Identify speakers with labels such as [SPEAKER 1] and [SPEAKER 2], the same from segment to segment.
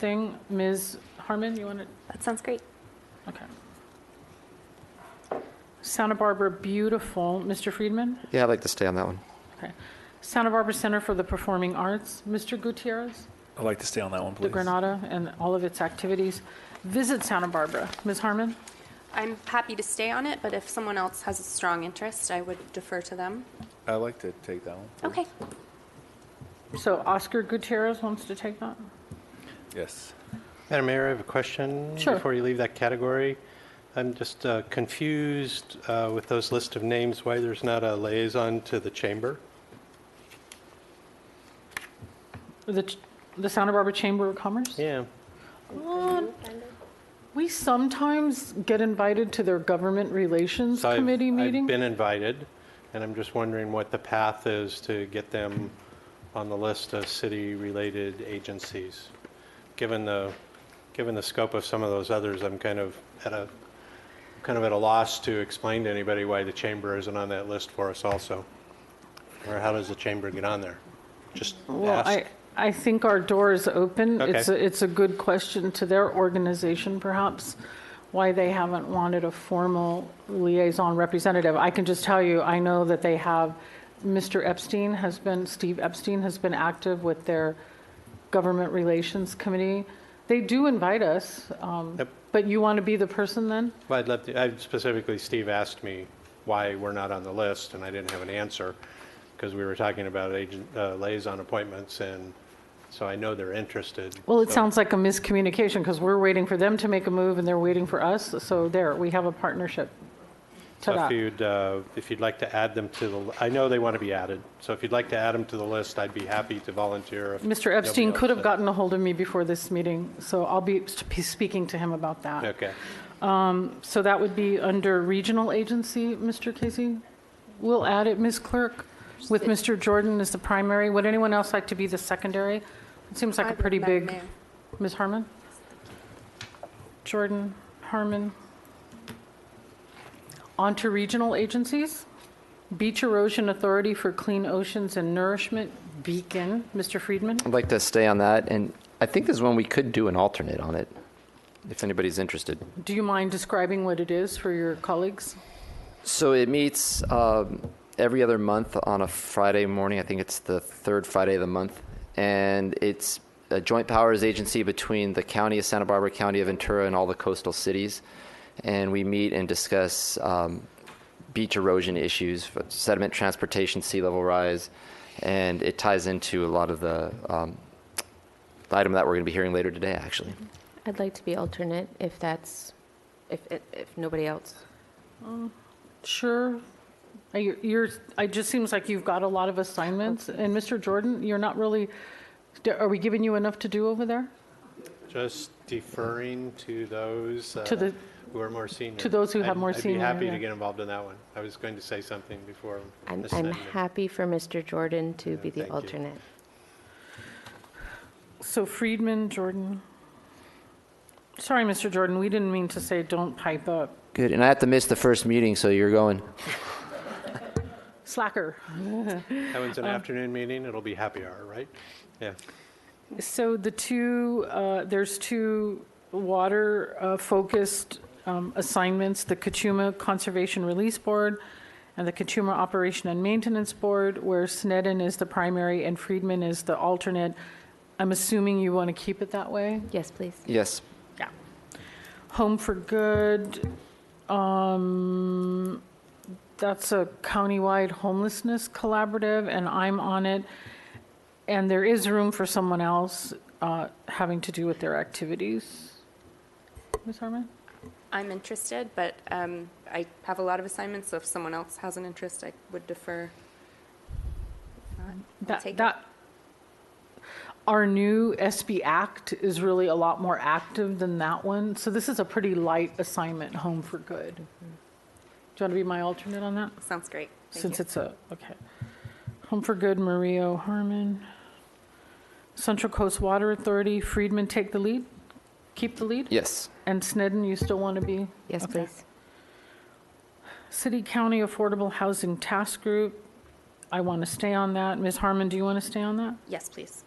[SPEAKER 1] thing. Ms. Harmon, you want to,
[SPEAKER 2] That sounds great.
[SPEAKER 1] okay. Santa Barbara Beautiful, Mr. Friedman?
[SPEAKER 3] Yeah, I'd like to stay on that one.
[SPEAKER 1] Okay. Santa Barbara Center for the Performing Arts, Mr. Gutierrez,
[SPEAKER 4] I'd like to stay on that one,
[SPEAKER 1] the
[SPEAKER 4] please.
[SPEAKER 1] Granada, and all of its activities. Visit Santa Barbara, Ms. Harmon?
[SPEAKER 2] I'm happy to stay on it, but if someone else has a strong interest, I would defer to them.
[SPEAKER 4] I'd like to take that one.
[SPEAKER 2] Okay.
[SPEAKER 1] So Oscar Gutierrez wants to take that?
[SPEAKER 4] Yes.
[SPEAKER 5] Madam Mayor, I have a question.
[SPEAKER 1] Sure.
[SPEAKER 5] Before you leave that category, I'm just uh, confused uh, with those list of names, why there's not a liaison to the chamber?
[SPEAKER 1] The, ch- the Santa Barbara Chamber of Commerce?
[SPEAKER 5] Yeah.
[SPEAKER 1] Um, We sometimes get invited to their Government Relations
[SPEAKER 5] So I've-
[SPEAKER 1] Committee
[SPEAKER 5] I've
[SPEAKER 1] meeting.
[SPEAKER 5] been invited, and I'm just wondering what the path is to get them on the list of city-related agencies. Given the, given the scope of some of those others, I'm kind of at a, kind of at a loss to explain to anybody why the chamber isn't on that list for us also. Or how does the chamber get on there? Just
[SPEAKER 1] Well, I,
[SPEAKER 5] ask.
[SPEAKER 1] I think our door is open. It's,
[SPEAKER 5] Okay.
[SPEAKER 1] a- it's a good question to their organization perhaps, why they haven't wanted a formal liaison representative. I can just tell you, I know that they have, Mr. Epstein has been, Steve Epstein has been active with their Government Relations Committee. They do invite us, um,
[SPEAKER 5] Yep.
[SPEAKER 1] but you want to be the person then?
[SPEAKER 5] Well, I'd love to, I- specifically, Steve asked me why we're not on the list, and I didn't have an answer, because we were talking about agent, uh, liaison appointments, and so I know they're interested.
[SPEAKER 1] Well, it
[SPEAKER 5] so-
[SPEAKER 1] sounds like a miscommunication because we're waiting for them to make a move and they're waiting for us. So there, we have a partnership to
[SPEAKER 5] So if
[SPEAKER 1] that.
[SPEAKER 5] you'd, uh, if you'd like to add them to the, l- I know they want to be added, so if you'd like to add them to the list, I'd be happy to volunteer. if
[SPEAKER 1] Mr.
[SPEAKER 5] nobody
[SPEAKER 1] Epstein
[SPEAKER 5] else
[SPEAKER 1] could have
[SPEAKER 5] said-
[SPEAKER 1] gotten a hold of me before this meeting, so I'll be sp- speaking to him about that.
[SPEAKER 5] Okay,
[SPEAKER 1] So that would be under regional agency, Mr. Casey? We'll add it, Ms. Clerk, with Mr. Jordan as the primary. Would anyone else like to be the secondary? It seems like
[SPEAKER 2] I
[SPEAKER 1] a
[SPEAKER 2] would,
[SPEAKER 1] pretty
[SPEAKER 2] Madam
[SPEAKER 1] big.
[SPEAKER 2] Mayor.
[SPEAKER 1] Ms. Harmon? Jordan, Harmon. On to regional agencies. Beach Erosion Authority for Clean Oceans and Nourishment, Beacon. Mr. Friedman?
[SPEAKER 3] I'd like to stay on that, and I think there's one we could do an alternate on it, if anybody's interested.
[SPEAKER 1] Do you mind describing what it is for your colleagues?
[SPEAKER 3] So it meets um, every other month on a Friday morning. I think it's the third Friday of the month, and it's a joint powers agency between the county of Santa Barbara, county of Ventura, and all the coastal cities. And we meet and discuss um, beach erosion issues, sediment transportation, sea level rise, and it ties into a lot of the um, the item that we're going to be hearing later today, actually.
[SPEAKER 6] I'd like to be alternate if that's, if, if- if nobody else.
[SPEAKER 1] Sure. Are you- Uh, You're, it just seems like you've got a lot of assignments. And Mr. Jordan, you're not really, are we giving you enough to do over there?
[SPEAKER 5] just deferring to those uh,
[SPEAKER 1] To the-
[SPEAKER 5] who are more senior.
[SPEAKER 1] to those who have
[SPEAKER 5] I'd-
[SPEAKER 1] more senior,
[SPEAKER 5] I'd be happy
[SPEAKER 1] yeah.
[SPEAKER 5] to get involved in that one. I was going to say something before.
[SPEAKER 6] I'm,
[SPEAKER 5] Ms.
[SPEAKER 6] I'm
[SPEAKER 5] Snyder.
[SPEAKER 6] happy for Mr. Jordan to be
[SPEAKER 5] thank
[SPEAKER 6] the
[SPEAKER 5] you.
[SPEAKER 6] alternate.
[SPEAKER 1] So Friedman, Jordan. Sorry, Mr. Jordan, we didn't mean to say don't pipe up.
[SPEAKER 3] Good, and I have to miss the first meeting, so you're going.
[SPEAKER 1] Slacker.
[SPEAKER 5] That one's an afternoon meeting, it'll be happy hour, right? Yeah.
[SPEAKER 1] So the two, uh, there's two water-focused um, assignments, the Kachuma Conservation Release Board and the Kachuma Operation and Maintenance Board, where Sneddon is the primary and Friedman is the alternate. I'm assuming you want to keep it that way?
[SPEAKER 6] Yes, please.
[SPEAKER 3] Yes.
[SPEAKER 1] Yeah. Home for Good, um, that's a countywide homelessness collaborative, and I'm on it. And there is room for someone else uh, having to do with their activities. Ms. Harmon?
[SPEAKER 2] I'm interested, but um, I have a lot of assignments, so if someone else has an interest, I would defer.
[SPEAKER 1] That-
[SPEAKER 2] take it.
[SPEAKER 1] that- Our new SB Act is really a lot more active than that one, so this is a pretty light assignment, Home for Good. Do you want to be my alternate on that?
[SPEAKER 2] Sounds great. Thank
[SPEAKER 1] Since
[SPEAKER 2] you.
[SPEAKER 1] it's a, okay. Home for Good, Maria Harmon. Central Coast Water Authority, Friedman take the lead? Keep the lead?
[SPEAKER 3] Yes.
[SPEAKER 1] And Snedden, you still want to be?
[SPEAKER 6] Yes,
[SPEAKER 1] Okay.
[SPEAKER 6] please.
[SPEAKER 1] City County Affordable Housing Task Group, I want to stay on that. Ms. Harmon, do you want to stay on that?
[SPEAKER 2] Yes, please.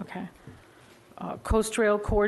[SPEAKER 1] Okay. Uh, Coast Rail Coordinator